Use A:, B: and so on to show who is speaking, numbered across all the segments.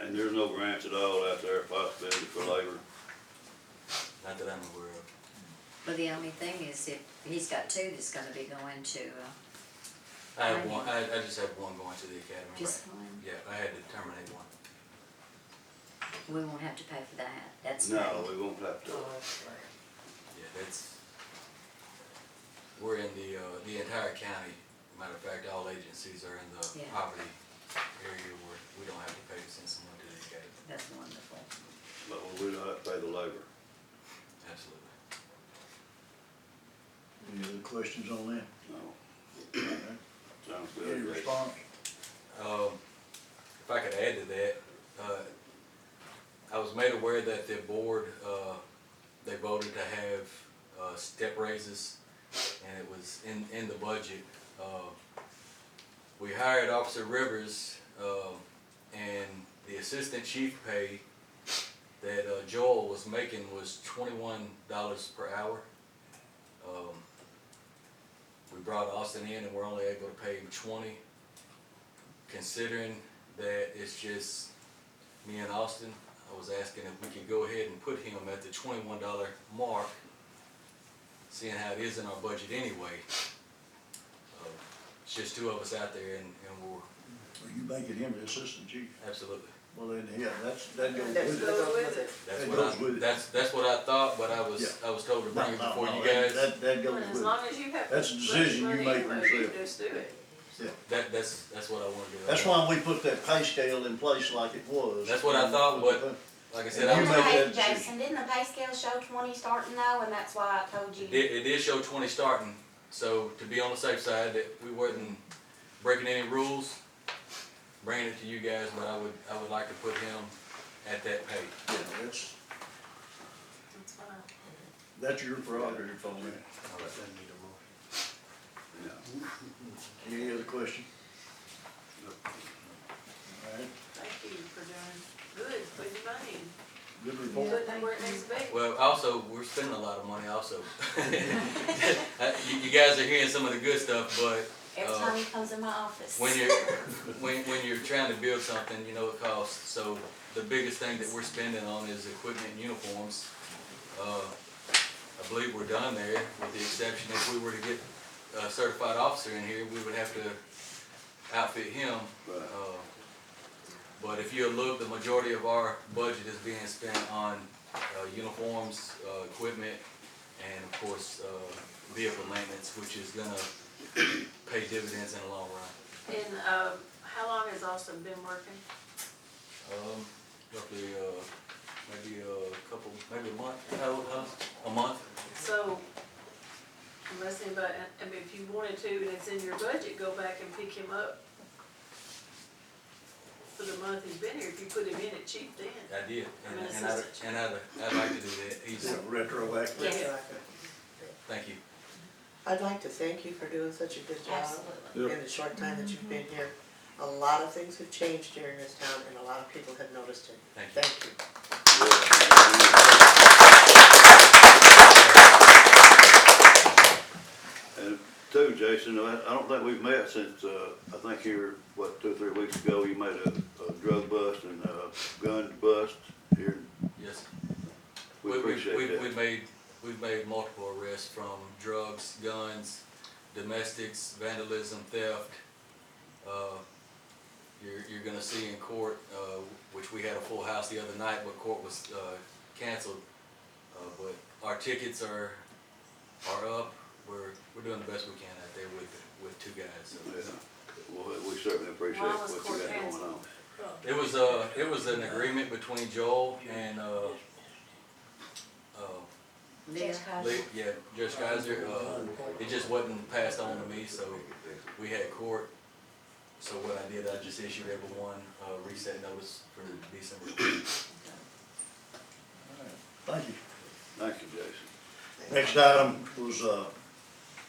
A: And there's no grants at all out there, possibility for labor.
B: Not that I'm aware of.
C: Well, the only thing is if, he's got two that's gonna be going to, uh,
B: I have
C: Right.
B: one, I, I just have one going to the academy.
C: just
B: right.
C: one,
B: Yeah, I had to terminate one.
C: we won't have to pay for that, that's
A: No,
C: paid.
A: we won't have to.
B: Yeah, that's, we're in the, uh, the entire county, matter of fact, all agencies are in the
C: Yeah.
B: poverty area where we don't have to pay to send someone to the academy.
C: That's wonderful.
A: But we don't have to pay the labor.
B: Absolutely.
D: Any other questions on that?
A: No,
D: Alright.
A: sounds
D: Any
A: good.
D: response?
B: Um, if I could add to that, uh, I was made aware that the board, uh, they voted to have, uh, step raises, and it was in, in the budget. Uh, We hired Officer Rivers, um, and the assistant chief pay that uh, Joel was making was twenty-one dollars per hour. Um, We brought Austin in and we're only able to pay him twenty considering that it's just me and Austin, I was asking if we could go ahead and put him at the twenty-one dollar mark, seeing how it is in our budget anyway. Uh, It's just two of us out there and, and we're,
D: Are you making him the assistant chief?
B: absolutely.
D: Well, then, yeah, that's, that goes
E: That's
D: with it.
E: go with it.
B: That's
D: That
B: what
D: goes with
B: I,
D: it.
B: that's, that's what I thought, but I was,
D: Yeah.
B: I was told to bring it
D: No, no,
B: before
D: no,
B: you
D: that-
B: guys.
D: That, that goes
E: Well, as
D: with it.
E: long as you have.
D: That's a decision you
E: money
D: make
E: anyway,
D: yourself.
E: Just do it.
B: That, that's, that's what I wanted to.
D: That's why we put that pay scale in place like it was.
B: That's what I thought, but- Like I said, I
D: You
B: was,
F: Didn't the
D: make that
F: pay,
D: decision.
F: Jason, didn't the pay scale show twenty starting though, and that's why I told you?
B: it did, it did show twenty starting, so to be on the safe side that we wasn't breaking any rules, bringing it to you guys, but I would, I would like to put him at that pay.
D: Yeah, that's,
E: That's fine.
D: that's your prerogative on that.
A: Yeah.
D: Any other question?
A: No.
D: Alright,
E: Thank you for doing good, putting your money, in,
D: good report.
E: putting it where it needs to be.
B: Well, also, we're spending a lot of money also. Uh, You, you guys are hearing some of the good stuff, but
F: Every
B: Uh,
F: time he comes in my office.
B: when you're, when, when you're trying to build something, you know it costs. So the biggest thing that we're spending on is equipment and uniforms. Uh, I believe we're done there, with the exception if we were to get a certified officer in here, we would have to outfit him.
A: Right.
B: Uh, But if you look, the majority of our budget is being spent on, uh, uniforms, uh, equipment, and of course, uh, vehicle maintenance, which is gonna pay dividends in the long run.
E: And, um, how long has Austin been working?
B: Um, roughly, uh, maybe a couple, maybe a month, how old, huh? A month?
E: So, unless anybody, I mean, if you wanted to, and it's in your budget, go back and pick him up for the month he's been here, if you put him in at cheap then.
B: I did, and,
E: I'm an
B: and I,
E: assistant.
B: and I, I'd like to do that, he's,
D: Yeah, Retroactive.
F: Yes.
B: thank you.
G: I'd like to thank you for doing such a good job
F: Absolutely.
D: Yep.
G: in the short time that you've been here. A lot of things have changed during this town and a lot of people have noticed it.
B: Thank you.
G: Thank you.
A: And two, Jason, I I don't think we've met since, uh, I think here, what, two, or three weeks ago, you made a, a drug bust and a gun bust here.
B: Yes.
A: We
B: we've-
A: appreciate
B: we've-
A: that.
B: We've made, we've made multiple arrests from drugs, guns, domestics, vandalism, theft. Uh, You're, you're gonna see in court, uh, which we had a full house the other night, but court was uh, canceled. Uh, But our tickets are, are up. We're, we're doing the best we can out there with, with two guys. so.
A: Yeah. Well, we certainly appreciate
E: Why
A: what
E: was
A: you
E: court
A: got going on.
E: canceled?
B: It was, uh, it was an agreement between Joel and, uh, uh,
C: Leah,
B: Lee- Yeah, Judge Geiser, uh, it just wasn't passed on to me, so we had court. So what I did, I just issued everyone a reset notice for December.
D: Thank you.
A: Thank you, Jason.
D: Next item was, uh,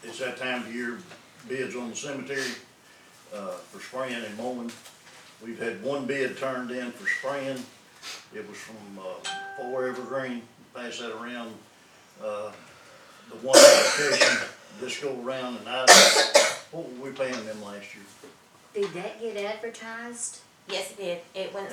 D: it's that time of year, bids on the cemetery, uh, for spraying and mowing. We've had one bid turned in for spraying. It was from, uh, Four Evergreen, pass that around. Uh, the one application, this go around and I, what were we paying them last year?
C: did that get advertised?
F: Yes, it did, it went